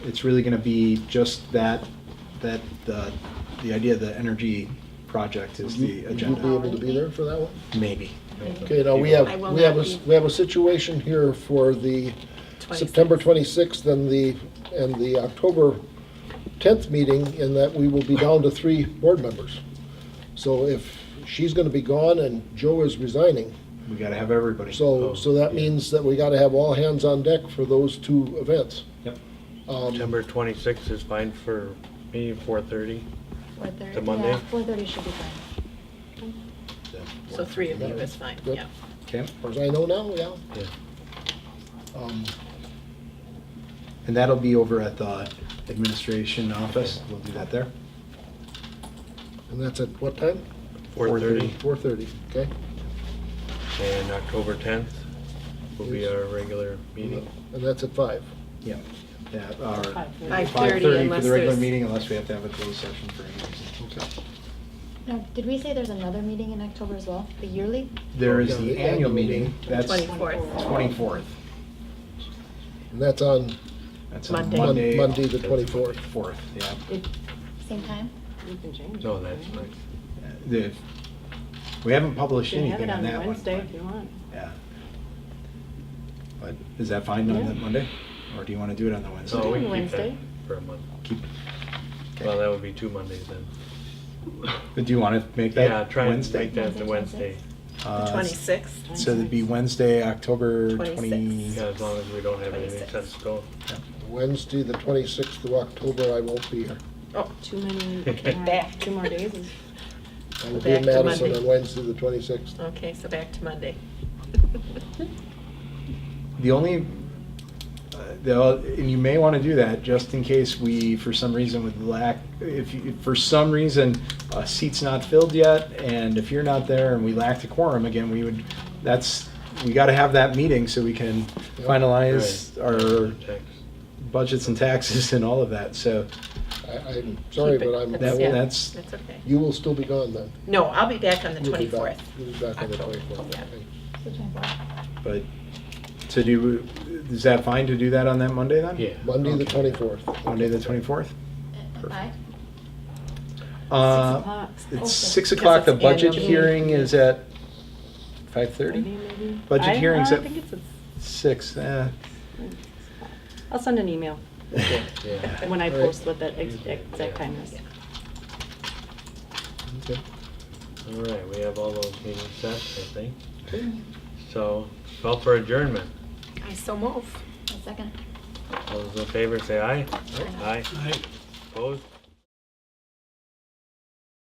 it's really going to be just that, that, the, the idea of the energy project is the Would you agenda, be able to be there for that one? maybe. Okay, now we have, I will we have, a not s- be. we have a situation here for the 26. September 26th and the, and the October 10th meeting in that we will be down to three board members. So if she's going to be gone and Joe is resigning, We got to have everybody. Oh, so, so that means that we got to have all hands on deck for those two events. Yep. Um, September twenty-sixth is fine for me, four thirty. Four thirty. The Monday? Yeah, four thirty should be fine. So three of you is fine, Yep. yeah. Okay, As far as I know now, yeah. Yeah. Um, and that'll be over at the administration office, we'll do that there. And that's at what time? Four thirty, 4:30, okay? and October tenth will be our regular meeting. And that's at five. Yeah, that, or. Five Five thirty thirty for unless the regular there's, meeting unless we have to have a closed session for any reason. Okay. Now, did we say there's another meeting in October as well, the yearly? There is the annual meeting, that's 24th. twenty-fourth. And that's on That's on Monday. Mon- Monday. Monday, the 24th. Fourth, yeah. Same time? You can change it. No, that's not, Uh, The- We haven't You published can have anything it on on that one. Wednesday if but- you want. Yeah. But is that fine on Yeah. that Monday? Or do you want to do it on the Wednesday? no, we doing can keep that Wednesday. for a month. Keep- Well, that would be two Mondays then. But do you want to make Yeah, that try and Wednesday? make that the Wednesday, Uh, twenty-sixth. So it'd be Wednesday, October 26th. twenty. yeah, as long as we don't have anything 26th. set in stone. Wednesday, the 26th of October, I won't be here. Too many, Back. two more days is I will be Back in to Madison Monday. on Wednesday, the 26th. Okay, so back to Monday. The only, uh, the, and you may want to do that just in case we, for some reason would lack, if, you- if for some reason a seat's not filled yet, and if you're not there and we lack the quorum, again, we would, that's, we got to have that meeting so we can Yep. finalize our Text. budgets and taxes and all of that, so I, I'm sorry, Keep it. but I'm, that, Yeah. that's, That's okay. you will still be gone then. No, I'll be back on the You'll be back- twenty-fourth. You'll be back on the October, 24th. yeah. okay. It's the 24th. but to do, is that fine to do that on that Monday then? Yeah. Monday, the Okay. 24th. Monday, the twenty-fourth? At uh, five? Uh, six o'clock. Okay. It's six Oh, Because o'clock, the it's annual budget meeting. hearing is at five Maybe, thirty? maybe. Budget I- hearings I at- think it's, a- Six, eh. I'll send an email Yeah. when I All right. post what that ex- exact time is. Okay. All right, we have all those meetings set, I think. So, call for adjournment. I so move. A second? All those in favor say aye. Aye. Opposed?